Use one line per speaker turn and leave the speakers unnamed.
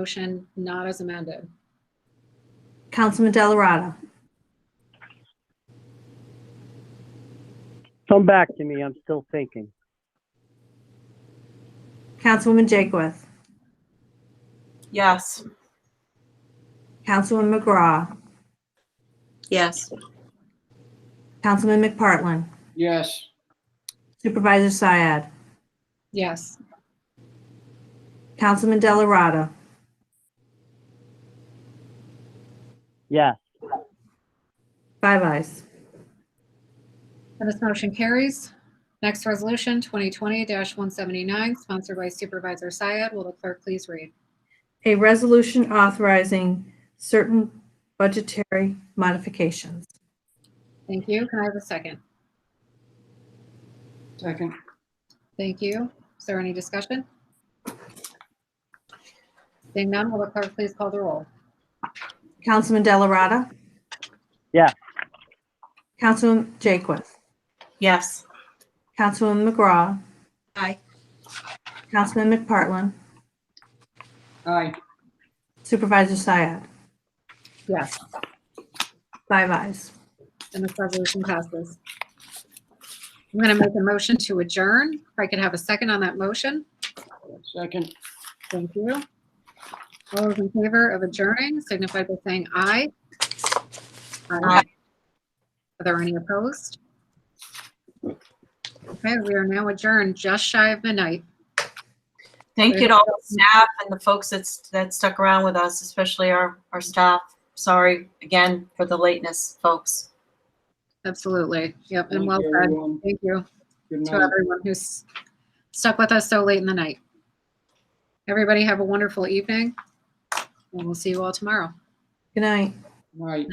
motion not as amended.
Councilman Delarada.
Come back to me. I'm still thinking.
Councilwoman Jakewith.
Yes.
Councilman McGraw.
Yes.
Councilman McPartlin.
yes,
Supervisor Syed.
Yes,
Councilman Delarada.
Yes,
Five ayes.
and this motion carries. Next resolution, 2020-179, sponsored by Supervisor Syed. Will the clerk please read?
A resolution authorizing certain budgetary modifications.
Thank you. Can I have a second?
second,
Thank you. Is there any discussion? Seeing none, will the clerk please call the roll?
Councilman Delarada.
Yes.
Councilman Jakewith.
Yes.
Councilman McGraw.
Aye.
Councilman McPartlin.
aye,
Supervisor Syed.
Yes.
Five ayes.
And this resolution passes. I'm going to make a motion to adjourn. If I could have a second on that motion.
second,
Thank you. All those in favor of adjourning signify by saying aye. Aye. Are there any opposed? Okay, we are now adjourned just shy of midnight.
Thank you to all the staff and the folks that's, that stuck around with us, especially our, our staff. Sorry again for the lateness, folks.
Absolutely. Yep, and
thank
well
you,
said.
everyone,
Thank you
good
to
night.
everyone who's stuck with us so late in the night. Everybody have a wonderful evening, and we'll see you all tomorrow.
Good night.
Night.